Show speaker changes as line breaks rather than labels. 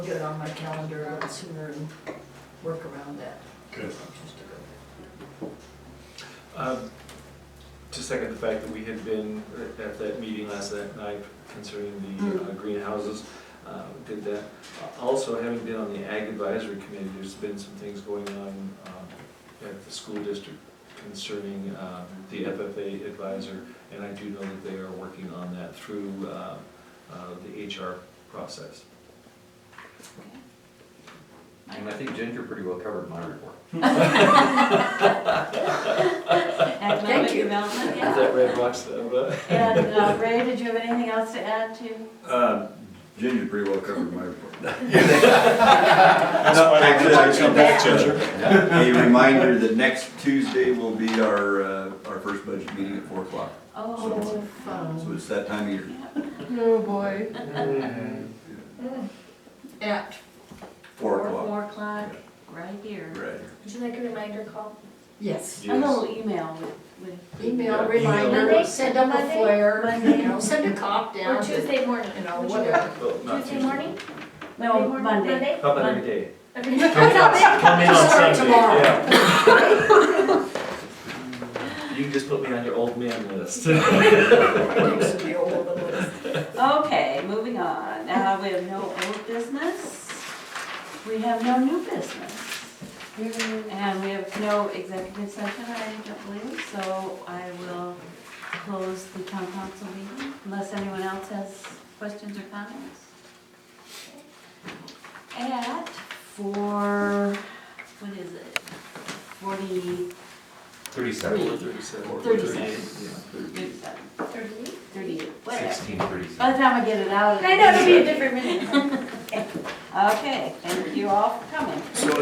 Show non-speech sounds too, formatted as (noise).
get it on my calendar a little sooner and work around that.
Good.
Just to go.
Um, To second the fact that we had been at that meeting last night concerning the uh, greenhouses, uh, did that. Also, having been on the ag advisory committee, there's been some things going on um, at the school district concerning uh, the FFA advisor, and I do know that they are working on that through uh, uh, the HR process.
And I think Ginger pretty well covered
(laughs)
my report.
Thank
Economic
you.
development,
Is
yeah.
that Red Rocks,
(laughs)
uh, (laughs)
And uh, Ray, did you have anything else to add to?
Uh, Ginger pretty well covered my report.
That's why I wanted you to come back, Ginger.
A reminder that next Tuesday will be our, uh, our first budget meeting at four o'clock.
Oh,
So it's that time of year.
No boy.
Mhm.
At,
Four o'clock.
Four o'clock, right here.
Right.
Would you like a reminder call?
yes,
A little email with, with.
email
Yeah,
reminder,
email.
send them a
Monday?
flare, you
Monday?
know, send a cop down.
Or Tuesday morning?
You know,
Would you
whatever. Oh.
Well,
like-
not
Tuesday morning?
No, Monday.
How about every day?
Okay. (laughs)
Come in on
Start
Sunday,
tomorrow.
yeah. You can just put me on your old man list.
Used to be old, but-
Okay, moving on. Now we have no old business. We have no new business. And we have no executive session, I don't believe, so I will close the town council meeting unless anyone else has questions or comments. At four, what is it? Forty,
Thirty-seven. Thirty-seven.
Thirty-seven. thirty-seven,
Thirty?
thirty-eight, whatever. By the time I get it out.
I know, it'll be a different minute.
Okay, thank you all for coming.
So